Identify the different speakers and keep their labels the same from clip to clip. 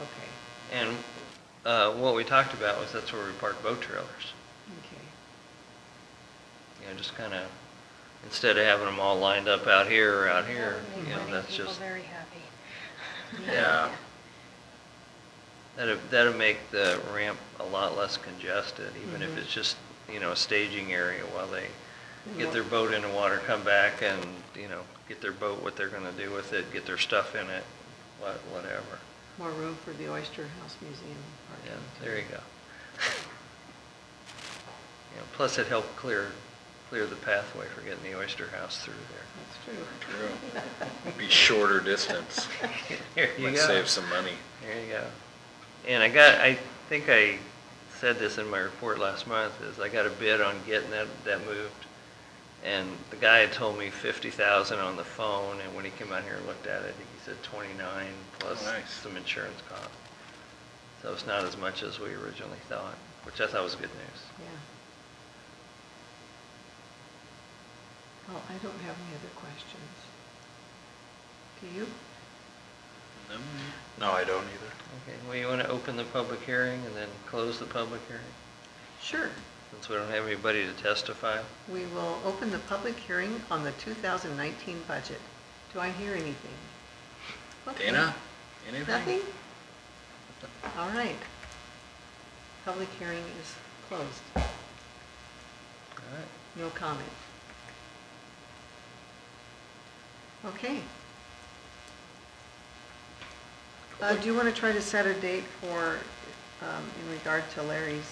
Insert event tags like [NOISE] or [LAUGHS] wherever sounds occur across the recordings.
Speaker 1: Okay,
Speaker 2: And uh, what we talked about was that's where we park boat trailers.
Speaker 1: okay.
Speaker 2: You know, just kind of, instead of having them all lined up out here or out here,
Speaker 3: Oh, Make
Speaker 2: you know,
Speaker 3: money,
Speaker 2: that's
Speaker 3: people
Speaker 2: just,
Speaker 3: very happy.
Speaker 2: Yeah. that'd, that'd make the ramp a lot less congested, even if
Speaker 3: Mm-hmm.
Speaker 1: Mhm.
Speaker 2: it's just, you know, a staging area while they get their
Speaker 1: Yeah.
Speaker 2: boat in the water, come back and, you know, get their boat, what they're going to do with it, get their stuff in it, wha- whatever.
Speaker 1: More room for the Oyster House Museum.
Speaker 2: Yeah,
Speaker 1: parking,
Speaker 2: there
Speaker 1: too.
Speaker 2: you go. [LAUGHS] Yeah, plus it helped clear, clear the pathway for getting the oyster house through there.
Speaker 1: That's true. [LAUGHS]
Speaker 4: True. Be shorter distance.
Speaker 2: There you
Speaker 4: Might
Speaker 2: go.
Speaker 4: Save some money.
Speaker 2: There you go. And I got, I think I said this in my report last month, is I got a bid on getting that, that moved. And the guy had told me fifty thousand on the phone, and when he came out here and looked at it, he said twenty-nine plus
Speaker 4: Oh, Nice.
Speaker 2: some insurance cost. So it's not as much as we originally thought, which I thought was good news.
Speaker 1: Yeah. Well, Oh, I don't have any other questions. Do you?
Speaker 5: No, I don't either.
Speaker 2: Okay, well, you want to open the public hearing and then close the public hearing?
Speaker 1: Sure.
Speaker 2: Since we don't have anybody to testify?
Speaker 1: We will open the public hearing on the 2019 budget. Do I hear anything? Okay.
Speaker 4: Dana, anything?
Speaker 1: Nothing? All right. Public hearing is closed.
Speaker 2: All right.
Speaker 1: No comment. Okay. Uh, do you want to try to set a date for, um, in regard to Larry's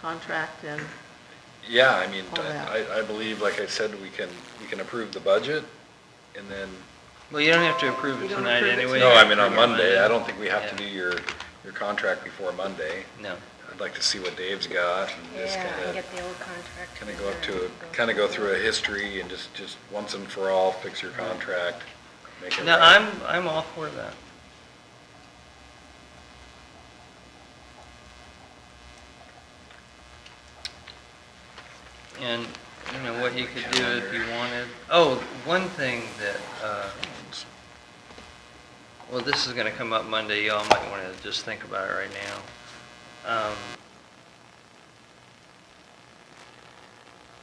Speaker 1: contract and,
Speaker 4: Yeah, I mean,
Speaker 1: All that.
Speaker 4: I, I believe, like I said, we can, we can approve the budget and then,
Speaker 2: Well, you don't have to approve
Speaker 1: You
Speaker 2: it
Speaker 1: don't
Speaker 2: tonight
Speaker 1: approve it
Speaker 2: anyway.
Speaker 1: Wait,
Speaker 4: no, I mean,
Speaker 2: Approve
Speaker 4: on
Speaker 2: it
Speaker 4: Monday, I don't think we have to do
Speaker 2: Yeah.
Speaker 4: your, your contract before Monday.
Speaker 2: No.
Speaker 4: I'd like to see what Dave's got and just
Speaker 3: Yeah, and
Speaker 4: kind of,
Speaker 3: get the old contract.
Speaker 4: kind of go up
Speaker 3: together
Speaker 4: to,
Speaker 3: and
Speaker 4: kind of go through a history and just, just once and for all, fix your contract. make it
Speaker 2: No,
Speaker 4: right.
Speaker 2: I'm, I'm all for that. And, you know, what you could do if you
Speaker 4: Calendar.
Speaker 2: wanted, oh, one thing that, uh, well, this is gonna come up Monday, y'all might wanna just think about it right now. Um,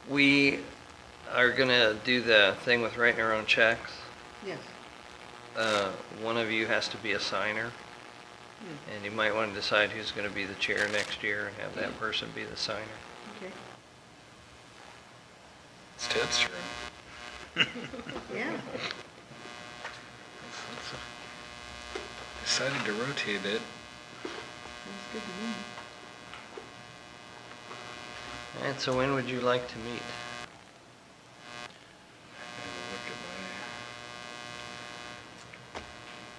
Speaker 2: We are gonna do the thing with writing our own checks
Speaker 1: yes,
Speaker 2: uh, one of you has to be a signer,
Speaker 1: Hmm.
Speaker 2: and you might want to decide who's going to be the chair next year and have that person be the signer.
Speaker 1: okay,
Speaker 4: It's Ted's room.
Speaker 1: yeah.
Speaker 4: Decided to rotate it.
Speaker 1: Sounds good to me.
Speaker 2: And so when would you like to meet?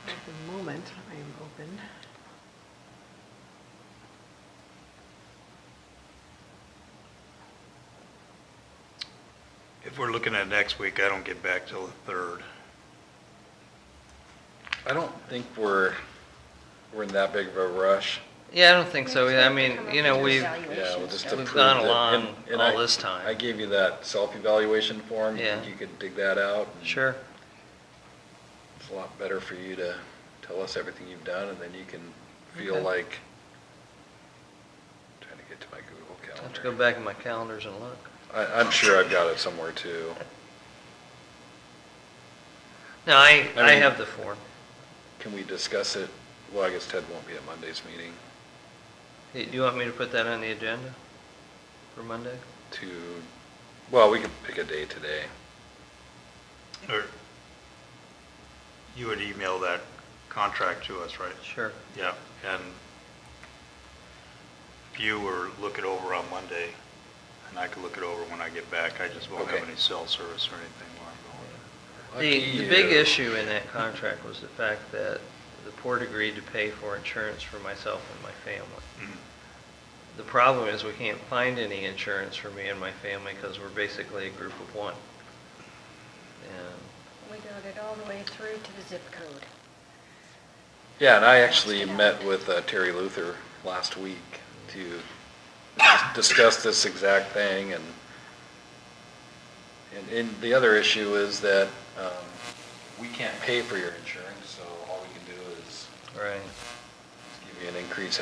Speaker 1: At the moment, I am open.
Speaker 5: If we're looking at next week, I don't get back till the third.
Speaker 4: I don't think we're, we're in that big of a rush.
Speaker 2: Yeah, I don't think so.
Speaker 3: Next
Speaker 2: I
Speaker 3: week we
Speaker 2: mean,
Speaker 3: come up
Speaker 2: you know,
Speaker 3: with
Speaker 2: we've,
Speaker 3: evaluation.
Speaker 4: Yeah, we'll just
Speaker 3: We've
Speaker 4: approve.
Speaker 2: gone
Speaker 4: it.
Speaker 2: along
Speaker 4: And- and
Speaker 2: all
Speaker 4: I-
Speaker 2: this time.
Speaker 4: I gave you that self-evaluation form.
Speaker 2: Yeah.
Speaker 4: You could dig that out. and
Speaker 2: sure,
Speaker 4: It's a lot better for you to tell us everything you've done, and then you can feel
Speaker 2: Okay.
Speaker 4: like, trying to get to my Google
Speaker 2: I'll
Speaker 4: Calendar.
Speaker 2: have to go back in my calendars and look.
Speaker 4: I, I'm sure I've got it somewhere too.
Speaker 2: No, I,
Speaker 4: I
Speaker 2: I
Speaker 4: mean-
Speaker 2: have the form.
Speaker 4: Can we discuss it? Well, I guess Ted won't be at Monday's meeting
Speaker 2: Hey, Do you want me to put that on the agenda for Monday?
Speaker 4: to, well, we could pick a day today.
Speaker 5: Or you would email that contract to us, right?
Speaker 2: Sure.
Speaker 5: Yeah, and if you were look it over on Monday, and I could look it over when I get back, I just won't have
Speaker 4: Okay.
Speaker 5: any cell service or anything while I'm going.
Speaker 2: The,
Speaker 4: Lucky
Speaker 2: the big
Speaker 4: you.
Speaker 2: issue in that contract was the fact that the port agreed to pay for insurance for myself and my family.
Speaker 5: Mm-hmm.
Speaker 2: The problem is we can't find any insurance for me and my family because we're basically a group of one. And
Speaker 3: We got it all the way through to the zip code.
Speaker 4: Yeah, and I actually met with uh, Terry Luther last week to dis- discuss this exact thing, and, and, and the other issue is that, um, we can't pay for your insurance, so all we can do is
Speaker 2: Right.